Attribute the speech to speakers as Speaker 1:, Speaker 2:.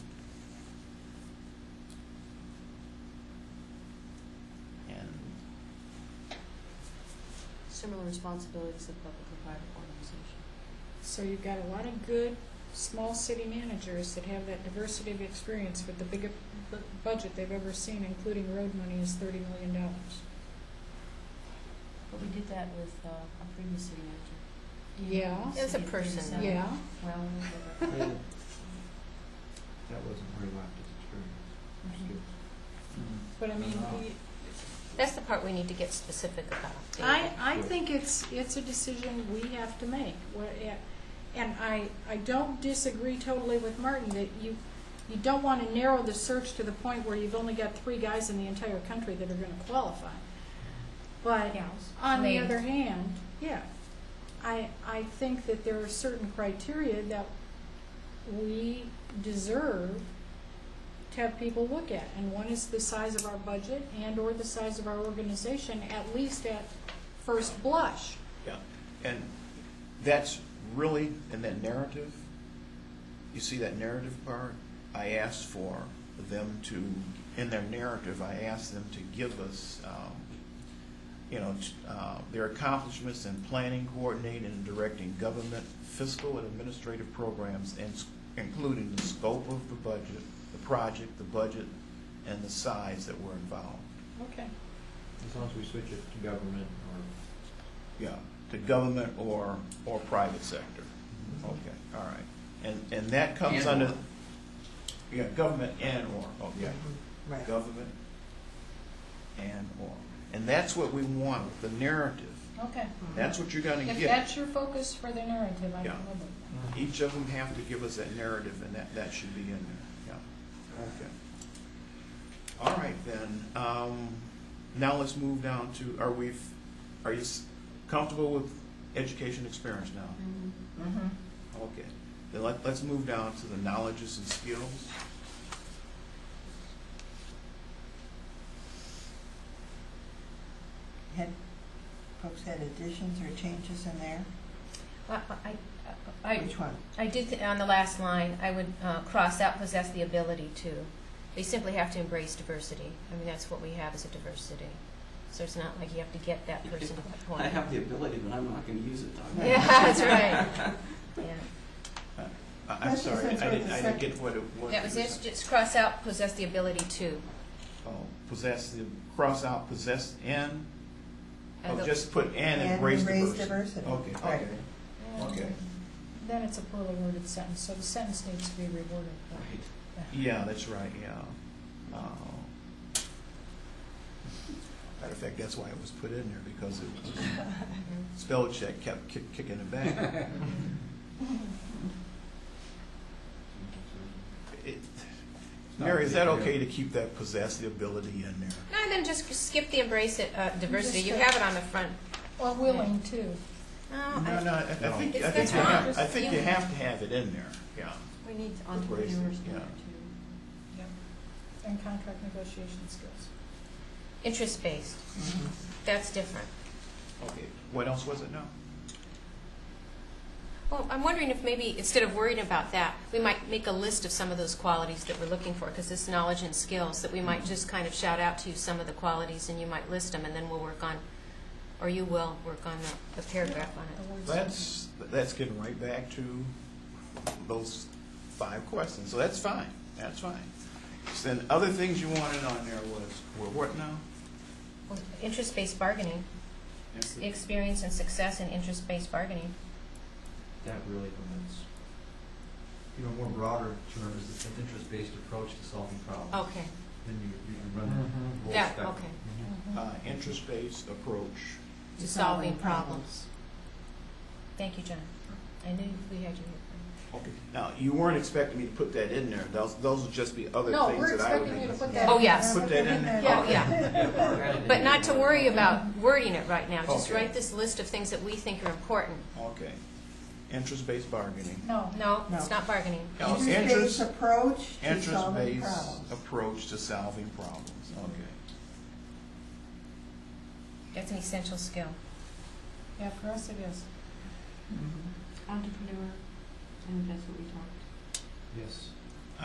Speaker 1: similar responsibilities of public or private organization.
Speaker 2: So you've got a lot of good small city managers that have that diversity of experience with the biggest bu- budget they've ever seen, including road money, is thirty million dollars.
Speaker 1: But we did that with uh, our previous city manager.
Speaker 2: Yeah.
Speaker 3: It's a
Speaker 1: City attorney
Speaker 3: person,
Speaker 1: said,
Speaker 2: Yeah,
Speaker 1: Well,
Speaker 4: I
Speaker 1: whatever.
Speaker 4: mean, That wasn't her laptop experience, her
Speaker 1: Mhm.
Speaker 4: skills.
Speaker 2: but I mean, we-
Speaker 3: That's the part we need to get specific about. David.
Speaker 2: I, I
Speaker 4: Yeah.
Speaker 2: think it's, it's a decision we have to make. What- yeah, And I, I don't disagree totally with Martin that you, you don't want to narrow the search to the point where you've only got three guys in the entire country that are going to qualify. But
Speaker 1: Gals.
Speaker 2: on the
Speaker 3: Ladies.
Speaker 2: other hand, yeah, I, I think that there are certain criteria that we deserve to have people look at, and one is the size of our budget and/or the size of our organization, at least at first blush.
Speaker 5: And that's really, in that narrative, you see that narrative part? I asked for them to, in their narrative, I asked them to give us, um, you know, t- uh, their accomplishments in planning, coordinating, and directing government fiscal and administrative programs, and s- including the scope of the budget, the project, the budget, and the size that were involved.
Speaker 2: Okay.
Speaker 4: As long as we switch it to government or.
Speaker 5: Yeah, to government or, or private sector. Okay, all right. And, and that comes
Speaker 6: And
Speaker 5: under,
Speaker 6: or.
Speaker 5: yeah, government and or, okay.
Speaker 6: Right.
Speaker 5: Government and or. And that's what we want, the narrative.
Speaker 2: Okay.
Speaker 5: That's what you're gonna
Speaker 2: Mm-hmm. If
Speaker 5: get.
Speaker 2: that's your focus for the narrative, I'm
Speaker 5: Yeah.
Speaker 2: with it.
Speaker 5: Each of them have to give us that narrative, and that, that should be in there, yeah. Okay. All right, then, um, now let's move down to, are we, are you s- comfortable with education experience now?
Speaker 1: Mhm.
Speaker 6: Mm-hmm.
Speaker 5: Okay, then let, let's move down to the knowledges and skills.
Speaker 6: Had, folks had additions or changes in there?
Speaker 3: I, I- I,
Speaker 6: Which one?
Speaker 3: I did, th- on the last line, I would uh, cross out possess the ability to. They simply have to embrace diversity. I mean, that's what we have as a diversity. So it's not like you have to get that person to that point.
Speaker 6: I have the ability, but I'm not going to use it. Doc.
Speaker 3: Yeah, that's right. Yeah.
Speaker 5: I, I'm
Speaker 6: That's-
Speaker 5: sorry, I
Speaker 6: that's what
Speaker 5: didn't,
Speaker 6: the
Speaker 5: I didn't get what it was.
Speaker 3: That was it, just cross out possess the ability to.
Speaker 5: Oh, possess, the- cross out possess and,
Speaker 3: I
Speaker 5: oh,
Speaker 3: don't-
Speaker 5: just put and
Speaker 6: And
Speaker 5: embrace
Speaker 6: embrace
Speaker 5: diversity.
Speaker 6: diversity.
Speaker 5: Okay,
Speaker 6: Right.
Speaker 5: okay, okay.
Speaker 2: Then it's a poorly worded sentence, so the sentence needs to be reworded.
Speaker 6: Right.
Speaker 5: Yeah, that's right, yeah. Uh, Matter of fact, that's why it was put in there, because it was, spell check kept kick- kicking it back. It- Mary, is that okay to keep that possess the ability in there?
Speaker 3: No, then just skip the embrace it, uh, diversity. You have it on the front.
Speaker 2: Or willing too.
Speaker 3: No,
Speaker 5: No,
Speaker 3: I-
Speaker 5: no, I I think,
Speaker 3: It's-
Speaker 5: I think
Speaker 3: that's
Speaker 5: you
Speaker 3: fine.
Speaker 5: have,
Speaker 2: Just-
Speaker 5: I think you
Speaker 3: you-
Speaker 5: have to have it in there, yeah.
Speaker 1: We need
Speaker 5: Embrace it,
Speaker 1: entrepreneurs in
Speaker 5: yeah.
Speaker 1: there too.
Speaker 2: And contract negotiation skills.
Speaker 3: Interest-based.
Speaker 6: Mhm.
Speaker 3: That's different.
Speaker 5: Okay. What else was it, no?
Speaker 3: Well, I'm wondering if maybe, instead of worrying about that, we might make a list of some of those qualities that we're looking for, because this knowledge and skills, that we might just kind of shout out to you some of the qualities, and you might list them, and then we'll work on, or you will work on the, the paragraph on it.
Speaker 2: The words.
Speaker 5: That's, that's getting right back to those five questions, so that's fine, that's fine. So Then other things you wanted on there was, were what now?
Speaker 3: Well, Interest-based bargaining, ex- experience and success in interest-based bargaining.
Speaker 4: That really limits. You know, more broader term is it's an interest-based approach to solving problems.
Speaker 3: Okay,
Speaker 4: Then you, you can run the whole
Speaker 3: Oh. Mm-hmm. yeah,
Speaker 4: spectrum.
Speaker 3: okay.
Speaker 2: Mm-hmm.
Speaker 5: Uh, interest-based approach.
Speaker 3: To solving problems. Thank you, John. I knew we had you here.
Speaker 5: Okay. Now, you weren't expecting me to put that in there, those, those would just be other
Speaker 2: No,
Speaker 5: things
Speaker 2: we're
Speaker 5: that I would.
Speaker 2: expecting you to
Speaker 5: be-
Speaker 2: put that.
Speaker 3: Oh,
Speaker 2: in
Speaker 3: yes.
Speaker 2: there.
Speaker 5: Put that in there?
Speaker 2: Yeah.
Speaker 3: Oh, yeah. But not to worry about wording it right now, just
Speaker 5: Okay.
Speaker 3: write this list of things that we think are important.
Speaker 5: Okay. Interest-based bargaining.
Speaker 2: No.
Speaker 3: No,
Speaker 6: No.
Speaker 3: it's not bargaining.
Speaker 5: Now,
Speaker 6: Interest-based
Speaker 5: interest-
Speaker 6: approach to solving
Speaker 5: Interest-based
Speaker 6: problems.
Speaker 5: approach to solving problems, okay.
Speaker 3: That's an essential skill.
Speaker 2: Yeah, for us it is.
Speaker 6: Mhm.
Speaker 1: Entrepreneur, I think that's what we talked.
Speaker 4: Yes.